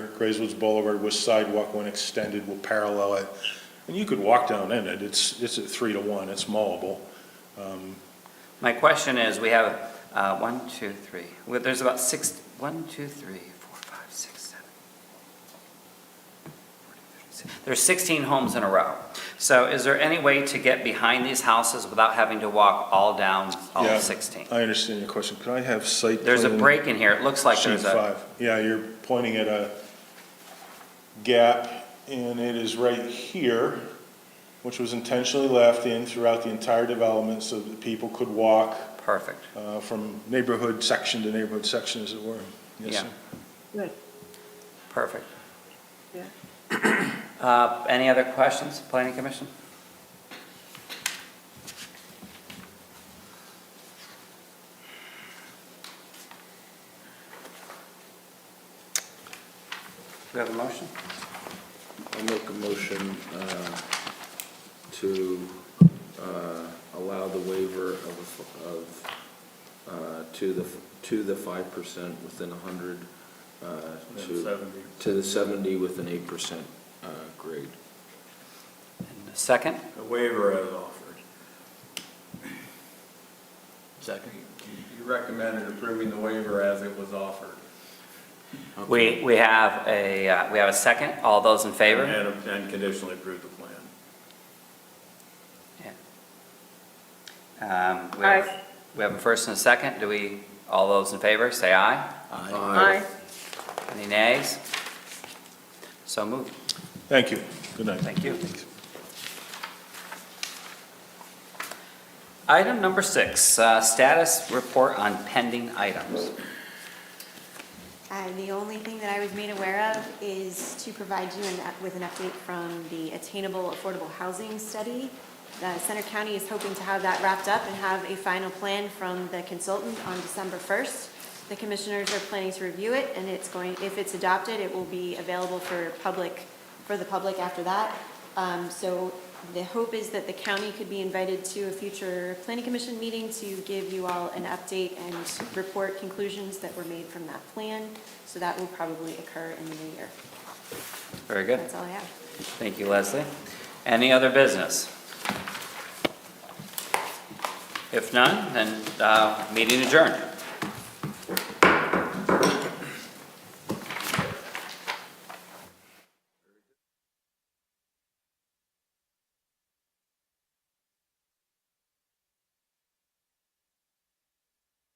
Grayswoods Boulevard with sidewalk when extended will parallel it. And you could walk down in it, it's, it's at three to one, it's mowable. My question is, we have, uh, one, two, three, Well, there's about six, one, two, three, four, five, six, seven. There's sixteen homes in a row. So is there any way to get behind these houses without having to walk all down all Yeah, sixteen? I understand your question, could I have site? There's a plan break in here, it looks like sheet there's a, five? Yeah, you're pointing at a gap, and it is right here, which was intentionally left in throughout the entire development so that people could walk perfect, uh, from neighborhood section to neighborhood section, as it were. Yes, Yeah. sir. Good, perfect. yeah. Uh, Any other questions, planning commission? Do we have a motion? I'll make a motion uh, to uh, allow the waiver of, of, uh, to the, to the five percent within a hundred, uh, to, to the seventy with an eight percent uh, grade. And a Second, A waiver as offered. Second. You recommended approving the waiver as it was offered. we, we have a, uh, we have a second, all those in favor? And and conditionally approve the plan. Um, we have- Aye. We have a first and a second, do we, all those in favor, say aye? Aye. Any nays? So moved, Thank you. Good night. thank you. Item number six, uh, status report on pending items. Uh, The only thing that I was made aware of is to provide you an up- with an update from the Attainable Affordable Housing Study. The Center County is hoping to have that wrapped up and have a final plan from the consultant on December 1st. The commissioners are planning to review it, and it's going, if it's adopted, it will be available for public, for the public after that. Um, So the hope is that the county could be invited to a future planning commission meeting to give you all an update and report conclusions that were made from that plan. So that will probably occur in the new year. Very good. That's all I have. Thank you, Leslie. Any other business? If none, then uh, meeting adjourned.